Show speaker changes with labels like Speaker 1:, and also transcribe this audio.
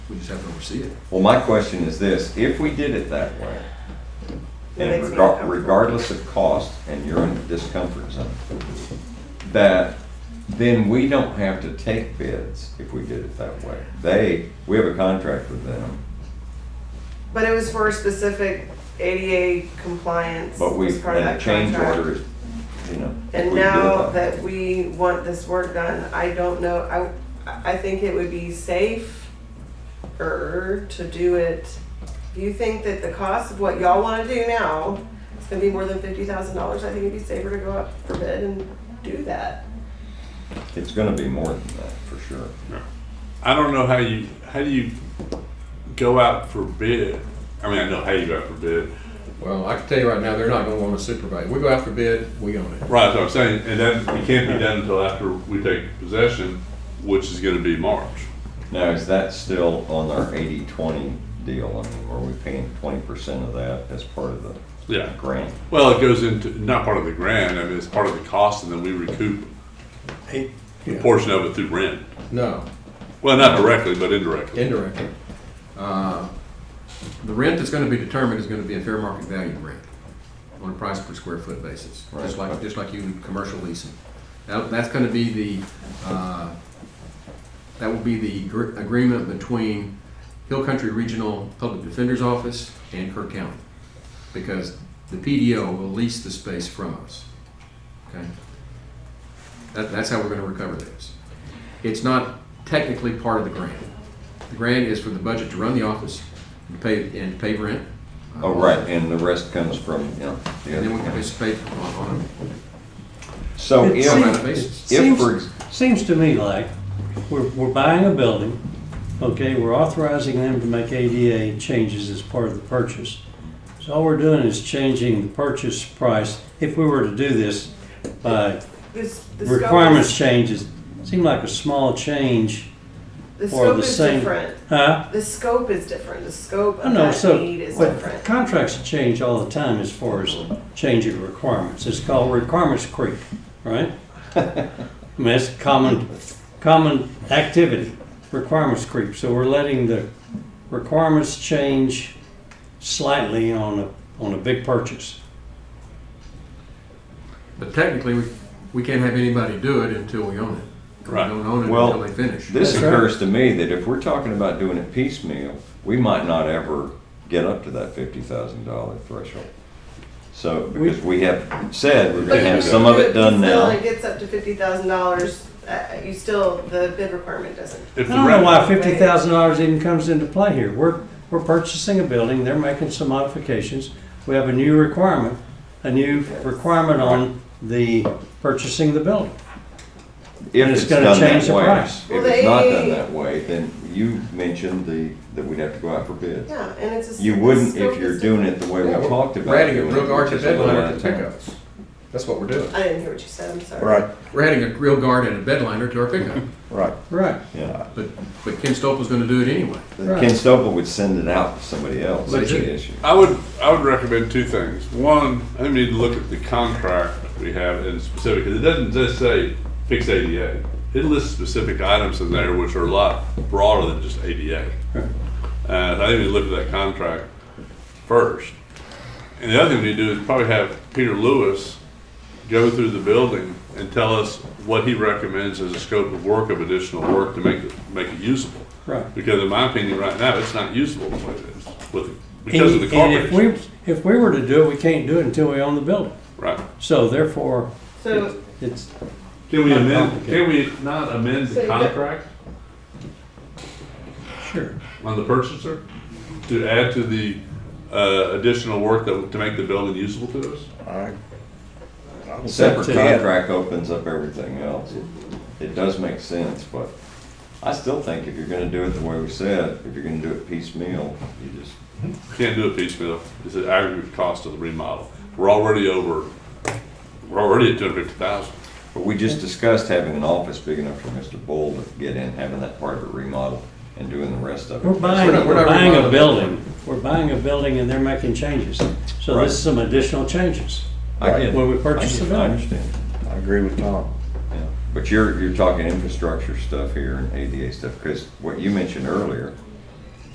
Speaker 1: we just have to oversee it.
Speaker 2: Well, my question is this, if we did it that way,
Speaker 3: It
Speaker 2: and
Speaker 3: makes me
Speaker 2: regar-
Speaker 3: uncomfortable.
Speaker 2: regardless of cost, and you're in the discomfort zone, that then we don't have to take bids if we did it that way. They, we have a contract with them,
Speaker 3: But it was for a specific ADA compliance
Speaker 2: but we,
Speaker 3: was part of
Speaker 2: and the
Speaker 3: that
Speaker 2: change order
Speaker 3: contract.
Speaker 2: is, you know. if
Speaker 3: And
Speaker 2: we did it
Speaker 3: now
Speaker 2: way.
Speaker 3: that we want this work done, I don't know, I, I think it would be safer to do it. Do you think that the cost of what y'all wanna do now is gonna be more than fifty thousand dollars? I think it'd be safer to go up for bid and do that.
Speaker 2: It's gonna be more than that, for sure.
Speaker 4: I don't know how you how do you go out for bid. I mean, I know how you go out for bid.
Speaker 1: Well, I can tell you right now, they're not gonna want to supervise. We go out for bid, we own it.
Speaker 4: Right, that's what I'm saying, and that it can't be done until after we take possession, which is going to be March.
Speaker 2: Now, is that still on our eighty-twenty deal? I mean, are we paying twenty percent of that as part of the
Speaker 4: Yeah.
Speaker 2: grant?
Speaker 4: Well, it goes into not part of the grant. I mean, it's part of the cost, and then we recoup a
Speaker 1: Yeah.
Speaker 4: portion of it through rent.
Speaker 1: No,
Speaker 4: Well, not directly, but indirectly.
Speaker 1: indirectly. Uh, The rent that's gonna be determined is gonna be a fair market value rent on a price per square foot basis, just
Speaker 2: Right.
Speaker 1: like, just like you would commercial leasing. That, that's gonna be the, uh, that will be the gr- agreement between Hill Country Regional Public Defender's Office and Kirk County. Because the PDO will lease the space from us, okay? That, that's how we're gonna recover this. It's not technically part of the grant. The grant is for the budget to run the office and pay, and pay rent.
Speaker 2: Oh, right, and the rest comes from, you know. the
Speaker 1: And then we
Speaker 2: other
Speaker 1: can
Speaker 2: counties.
Speaker 1: participate on, on
Speaker 2: So
Speaker 5: It
Speaker 1: a
Speaker 2: if,
Speaker 5: seems-
Speaker 1: amount basis.
Speaker 2: if
Speaker 5: Seems-
Speaker 2: for,
Speaker 5: Seems to me like we're, we're buying a building, okay, we're authorizing them to make ADA changes as part of the purchase. So all we're doing is changing the purchase price, if we were to do this, by
Speaker 3: This, the scope is-
Speaker 5: requirements changes, seem like a small change,
Speaker 3: The
Speaker 5: or
Speaker 3: scope
Speaker 5: the
Speaker 3: is
Speaker 5: same-
Speaker 3: different.
Speaker 5: huh?
Speaker 3: The scope is different, the scope
Speaker 5: I
Speaker 3: of
Speaker 5: know,
Speaker 3: that
Speaker 5: so,
Speaker 3: need is
Speaker 5: but
Speaker 3: different.
Speaker 5: contracts change all the time as far as changing requirements. It's called requirements creep, right? I mean, it's a common, common activity, requirements creep. So we're letting the requirements change slightly on a, on a big purchase.
Speaker 1: But technically, we, we can't have anybody do it until we own it.
Speaker 4: Right.
Speaker 1: We don't own it
Speaker 2: Well,
Speaker 1: until they finish.
Speaker 2: this
Speaker 5: That's right.
Speaker 2: occurs to me that if we're talking about doing it piecemeal, we might not ever get up to that fifty thousand dollar threshold. So, because we have said we're
Speaker 3: But
Speaker 2: gonna have
Speaker 3: you
Speaker 2: some of
Speaker 3: do
Speaker 2: it done
Speaker 3: still,
Speaker 2: now.
Speaker 3: It gets up to fifty thousand dollars, uh, you still, the bid requirement doesn't.
Speaker 4: If the
Speaker 5: I don't know
Speaker 4: rent,
Speaker 5: why fifty thousand dollars even comes into play here. We're, we're purchasing a building, they're making some modifications. We have a new requirement, a new requirement on the purchasing the building.
Speaker 2: If
Speaker 5: And it's
Speaker 2: it's
Speaker 5: gonna
Speaker 2: done
Speaker 5: change
Speaker 2: that
Speaker 5: the
Speaker 2: way,
Speaker 5: price.
Speaker 2: if
Speaker 3: Well,
Speaker 2: it's not done
Speaker 3: they-
Speaker 2: that way, then you mentioned the, that we'd have to go out for bids.
Speaker 3: Yeah, and it's a.
Speaker 2: You wouldn't if you're doing it the way we
Speaker 1: Yeah, we're
Speaker 2: talked about.
Speaker 1: We're adding a
Speaker 2: doing
Speaker 1: real
Speaker 2: it,
Speaker 1: guard
Speaker 2: which
Speaker 1: to
Speaker 2: is a little
Speaker 1: deadline
Speaker 2: out
Speaker 1: at
Speaker 2: of
Speaker 1: the
Speaker 2: town.
Speaker 1: pickups. That's what we're doing.
Speaker 3: I didn't hear what you said, I'm sorry.
Speaker 6: Right,
Speaker 1: We're adding a real guard and a bedliner to our pickup.
Speaker 6: right.
Speaker 5: Right.
Speaker 2: Yeah.
Speaker 1: But, but Ken Stolpe's gonna do it anyway.
Speaker 5: Right.
Speaker 2: Ken Stopa would send it out to somebody else,
Speaker 1: But
Speaker 2: that's
Speaker 1: you-
Speaker 2: the issue.
Speaker 4: I would I would recommend two things. One, I think we need to look at the contract we have in specific. 'cause It doesn't just say fix ADA. It lists specific items in there which are a lot broader than just ADA. Uh, I think we look at that contract first. And the other thing we need to do is probably have Peter Lewis go through the building and tell us what he recommends as a scope of work of additional work to make it, make it usable.
Speaker 5: Right.
Speaker 4: Because in my opinion, right now, it's not usable the way it is with, because of the
Speaker 5: And-
Speaker 4: carpet.
Speaker 5: And if we, if we were to do it, we can't do it until we own the building.
Speaker 4: Right.
Speaker 5: So therefore,
Speaker 3: So,
Speaker 5: it's,
Speaker 4: Can we
Speaker 5: Not
Speaker 4: amend, can
Speaker 5: complicated.
Speaker 4: we not amend
Speaker 3: So
Speaker 4: the
Speaker 3: you got-
Speaker 4: contract
Speaker 5: sure.
Speaker 4: on the purchaser to add to the, uh, additional work that, to make the building usable to us?
Speaker 6: I- I don't
Speaker 2: Separate
Speaker 6: think we can.
Speaker 2: contract opens up everything else. It does make sense, but I still think if you're gonna do it the way we said, if you're gonna do it piecemeal, you just,
Speaker 4: Can't do a piecemeal. It's an aggregate cost of the remodel. We're already over, we're already at two hundred fifty thousand.
Speaker 2: but we just discussed having an office big enough for Mr. Bull to get in, having that part of it remodeled and doing the rest of it.
Speaker 5: We're buying,
Speaker 1: We're not- we're
Speaker 5: we're
Speaker 1: not
Speaker 5: buying a
Speaker 1: remodeling.
Speaker 5: building. We're buying a building and they're making changes. So
Speaker 2: Right.
Speaker 5: this is some additional changes.
Speaker 2: I get it.
Speaker 5: When we purchase
Speaker 2: I get it.
Speaker 5: the
Speaker 2: I
Speaker 5: building.
Speaker 2: understand,
Speaker 6: I agree with Tom.
Speaker 2: yeah. But you're, you're talking infrastructure stuff here and ADA stuff, because what you mentioned earlier